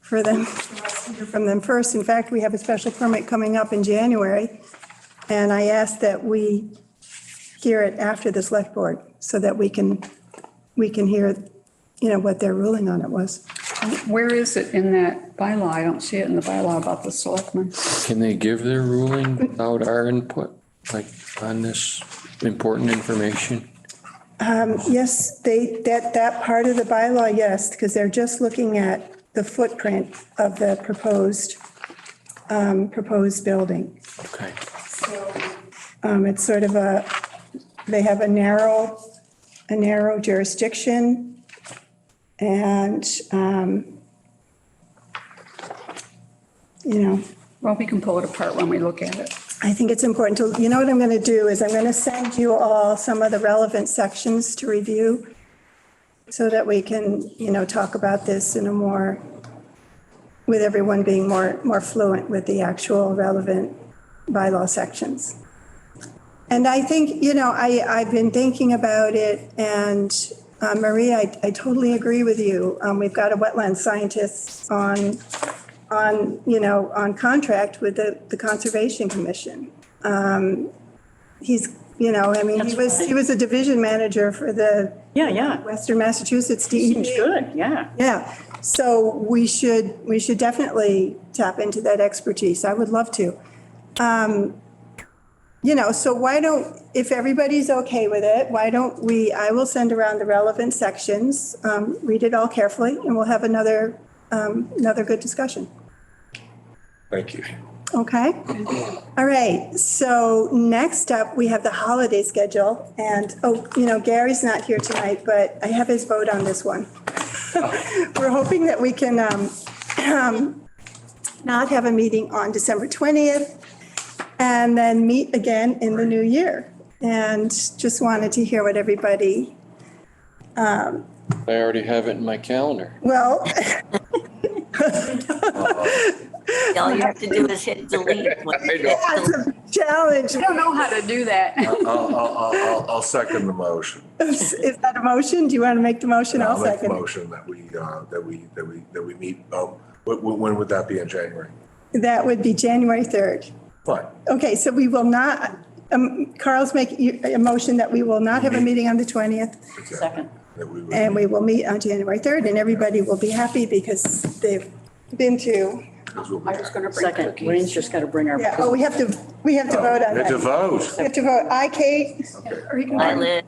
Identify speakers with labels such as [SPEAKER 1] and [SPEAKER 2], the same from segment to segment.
[SPEAKER 1] for them, hear from them first. In fact, we have a special permit coming up in January, and I ask that we hear it after the select board, so that we can, we can hear, you know, what their ruling on it was.
[SPEAKER 2] Where is it in that bylaw? I don't see it in the bylaw about the selectmen.
[SPEAKER 3] Can they give their ruling without our input, like on this important information?
[SPEAKER 1] Yes, they, that, that part of the bylaw, yes, because they're just looking at the footprint of the proposed, um, proposed building.
[SPEAKER 3] Okay.
[SPEAKER 1] Um, It's sort of a, they have a narrow, a narrow jurisdiction. And, um, you know,
[SPEAKER 2] Well, we can pull it apart when we look at it.
[SPEAKER 1] I think it's important to, you know what I'm going to do is I'm going to send you all some of the relevant sections to review so that we can, you know, talk about this in a more, with everyone being more, more fluent with the actual relevant bylaw sections. And I think, you know, I, I've been thinking about it and uh, Marie, I, I totally agree with you. Um, We've got a wetland scientist on on, you know, on contract with the, the Conservation Commission. Um, He's, you know, I mean, he
[SPEAKER 4] That's
[SPEAKER 1] was,
[SPEAKER 4] right.
[SPEAKER 1] he was a division manager for the
[SPEAKER 4] Yeah, yeah.
[SPEAKER 1] Western Massachusetts E DEP.
[SPEAKER 4] Seems good, yeah.
[SPEAKER 1] Yeah, so we should, we should definitely tap into that expertise. I would love to. Um, You know, so why don't, if everybody's okay with it, why don't we, I will send around the relevant sections, um, read it all carefully, and we'll have another, um, another good discussion.
[SPEAKER 5] Thank you.
[SPEAKER 1] Okay. All right. So next up, we have the holiday schedule. And, oh, you know, Gary's not here tonight, but I have his vote on this one. We're hoping that we can um, not have a meeting on December 20th and then meet again in the new year. And just wanted to hear what everybody,
[SPEAKER 3] I already have it in my calendar.
[SPEAKER 1] well,
[SPEAKER 6] All you have to do is hit delete. when-
[SPEAKER 5] I know.
[SPEAKER 1] that's a challenge.
[SPEAKER 2] I don't know how to do that.
[SPEAKER 5] I'll, I'll, I'll, I'll- I'll second the motion.
[SPEAKER 1] Is is that a motion? Do you want to make the motion? I'll
[SPEAKER 5] make the
[SPEAKER 1] second.
[SPEAKER 5] Motion that we, uh, that we, that we, that we meet, um, when, when would that be in January?
[SPEAKER 1] That would be January 3rd.
[SPEAKER 5] Fine.
[SPEAKER 1] Okay, so we will not, um, Carl's making a motion that we will not have a meeting on the 20th,
[SPEAKER 5] Okay.
[SPEAKER 4] Second.
[SPEAKER 5] That we would.
[SPEAKER 1] and we will meet on January 3rd, and everybody will be happy because they've been to,
[SPEAKER 5] because we'll be
[SPEAKER 2] I was
[SPEAKER 5] back.
[SPEAKER 2] going to bring
[SPEAKER 4] Second,
[SPEAKER 2] cookies.
[SPEAKER 4] Wayne's just got to bring our.
[SPEAKER 1] yeah, oh, we have to, we have to vote on
[SPEAKER 5] We have to
[SPEAKER 1] that.
[SPEAKER 5] vote.
[SPEAKER 1] We have to vote. Aye, Kate,
[SPEAKER 5] Okay.
[SPEAKER 2] Or you can-
[SPEAKER 6] I live.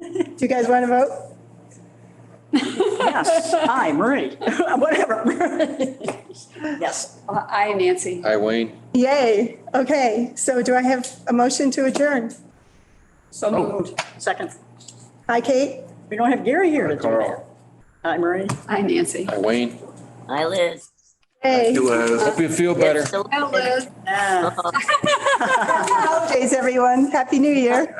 [SPEAKER 1] do you guys want to vote?
[SPEAKER 4] Yes, hi, Marie, whatever. Yes,
[SPEAKER 2] Uh, Aye, Nancy.
[SPEAKER 3] Hi, Wayne.
[SPEAKER 1] Yay, okay, so do I have a motion to adjourn?
[SPEAKER 2] So
[SPEAKER 4] Oh.
[SPEAKER 2] moved.
[SPEAKER 4] second.
[SPEAKER 1] Aye, Kate,
[SPEAKER 4] We don't have Gary here to do that.
[SPEAKER 5] Carl.
[SPEAKER 4] Hi, Marie.
[SPEAKER 2] Aye, Nancy.
[SPEAKER 3] Hi, Wayne.
[SPEAKER 6] I live.
[SPEAKER 1] yay,
[SPEAKER 5] You, uh,
[SPEAKER 3] Hope you feel better.
[SPEAKER 6] So-
[SPEAKER 4] Yeah.
[SPEAKER 1] holidays, everyone, happy new year.